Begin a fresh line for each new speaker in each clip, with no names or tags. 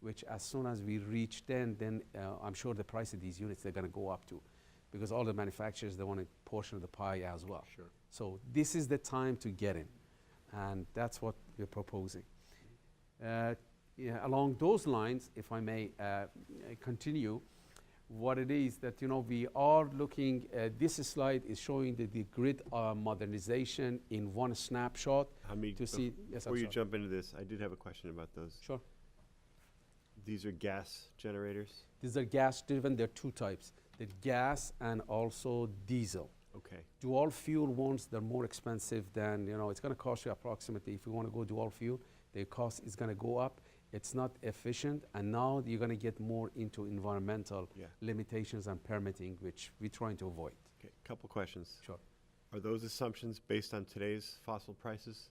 which as soon as we reach 10, then uh, I'm sure the price of these units, they're going to go up too, because all the manufacturers, they want a portion of the pie as well.
Sure.
So this is the time to get in, and that's what we're proposing. Uh, yeah, along those lines, if I may uh, continue, what it is that you know we are looking. Uh, this slide is showing the, the grid uh, modernization in one snapshot
Hamid,
to
bef-
see. Yes, I'm
before you
sorry.
jump into this, I did have a question about those.
Sure.
These are gas generators?
These are gas-driven. There are two types: the gas and also diesel.
Okay,
dual fuel ones they're more expensive than you know it's going to cost you approximately if you want to go dual fuel the cost is going to go up it's not efficient and now you're going to get more into environmental
yeah.
limitations and permitting which we're trying to avoid
Okay, couple questions.
sure
Are those assumptions based on today's fossil prices?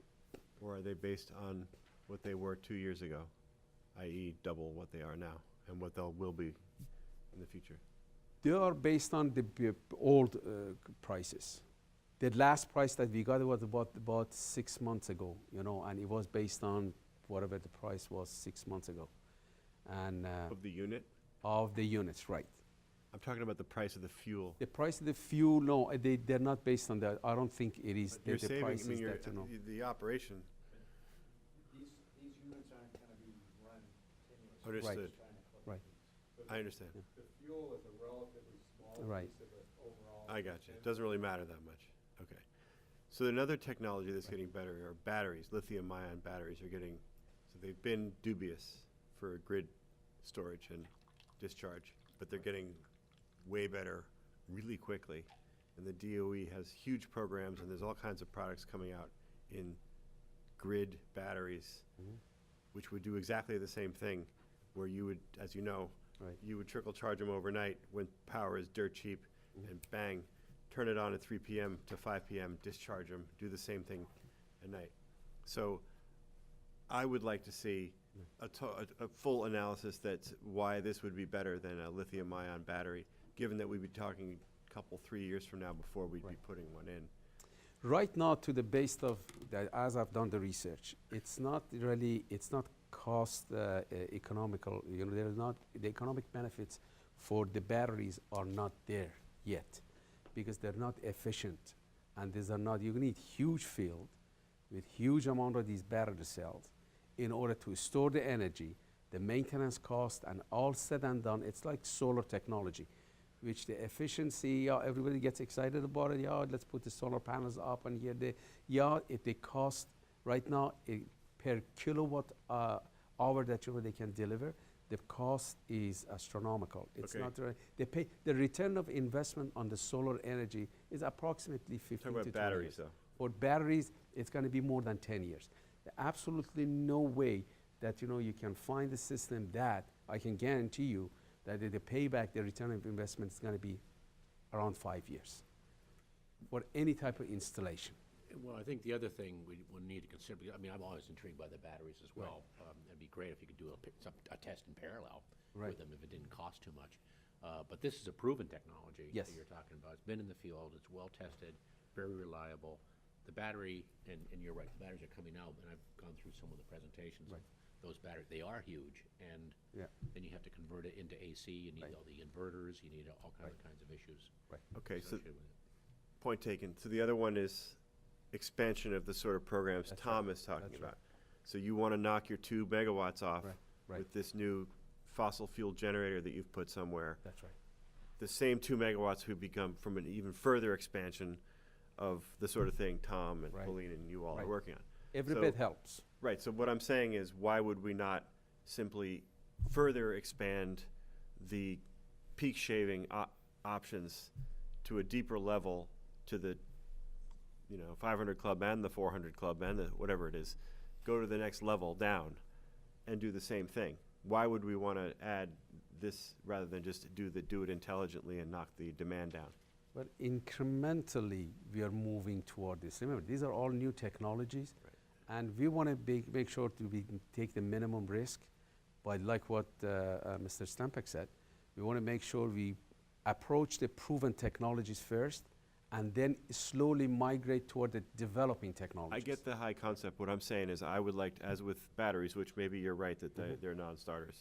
Or are they based on what they were two years ago, i.e. double what they are now and what they'll will be in the future?
they are based on the b- old uh, c- prices the last price that we got was about about six months ago you know and it was based on whatever the price was six months ago and uh,
Of the unit?
of the units right
I'm talking about the price of the fuel.
The price of the fuel, no, uh, they, they're not based on that. I don't think it is
But
the,
You're
the
saving, I
prices
mean, you're,
that, you know.
the- the operation,
These, these units aren't gonna be run continuously.
understood.
Right.
I understand.
The fuel is a relatively small
Right.
piece of the overall.
I got you.
picture.
It doesn't really matter that much. Okay. So another technology that's getting better are batteries. Lithium ion batteries are getting, so they've been dubious for grid storage and discharge, but they're getting way better really quickly. And the DOE has huge programs and there's all kinds of products coming out in grid batteries,
Mm-hmm.
which would do exactly the same thing, where you would, as you know,
Right.
you would trickle charge them overnight when power is dirt cheap,
Mm-hmm.
and bang, turn it on at three PM to five PM, discharge them, do the same thing at night. So I would like to see
Mm-hmm.
a, to- a, a full analysis that's why this would be better than a lithium ion battery, given that we'd be talking a couple, three years from now before we'd be
Right.
putting one in.
Right now, to the base of, that as I've done the research, it's not really, it's not cost uh, e- economical, you know, there's not, the economic benefits for the batteries are not there yet because they're not efficient. And these are not, you need huge field with huge amount of these battery cells in order to store the energy, the maintenance cost, and all said and done, it's like solar technology, which the efficiency, yeah, everybody gets excited about it. Yeah, let's put the solar panels up and here they, yeah, if they cost right now it, per kilowatt uh, hour that you know, they can deliver, the cost is astronomical. It's
Okay.
not re- they pay the return of investment on the solar energy is approximately 15
Talking
to
about
20 years
batteries though.
for batteries, it's going to be more than 10 years. There absolutely no way that you know you can find a system that I can guarantee you that the the payback, the return of investment is going to be around five years for any type of installation.
Well, I think the other thing we would need to consider, because, I mean, I'm always intrigued by the batteries as well. Um, It'd be great if you could do a, pi- some, a test in parallel
Right.
with them if it didn't cost too much. Uh, But this is a proven technology.
Yes.
That you're talking about. It's been in the field, it's well-tested, very reliable. The battery, and, and you're right, the batteries are coming out, and I've gone through some of the presentations. of
Right.
Those batteries, they are huge, and
Yeah.
then you have to convert it into AC, you need
Right.
all the inverters, you need all kinds of kinds of issues
Okay, so
associated with it.
Point taken. So the other one is expansion of the sort of programs Tom is talking about. So you want to knock your two megawatts off
Right, right.
with this new fossil fuel generator that you've put somewhere.
That's right.
The same two megawatts would become from an even further expansion of the sort of thing Tom and
Right.
Pauline and you all
Right.
are working on.
Every
So-
bit helps.
Right, so what I'm saying is, why would we not simply further expand the peak shaving op- options to a deeper level to the, you know, 500 club and the 400 club and the whatever it is, go to the next level down and do the same thing? Why would we want to add this rather than just do the, do it intelligently and knock the demand down?
But incrementally, we are moving toward this. Remember, these are all new technologies, and we want to be, make sure to be, take the minimum risk. But like what uh, uh, Mr. Stampek said, we want to make sure we approach the proven technologies first, and then slowly migrate toward the developing
I
technologies.
get the high concept. What I'm saying is I would like, to- as with batteries, which maybe you're right that they- they're non-starters,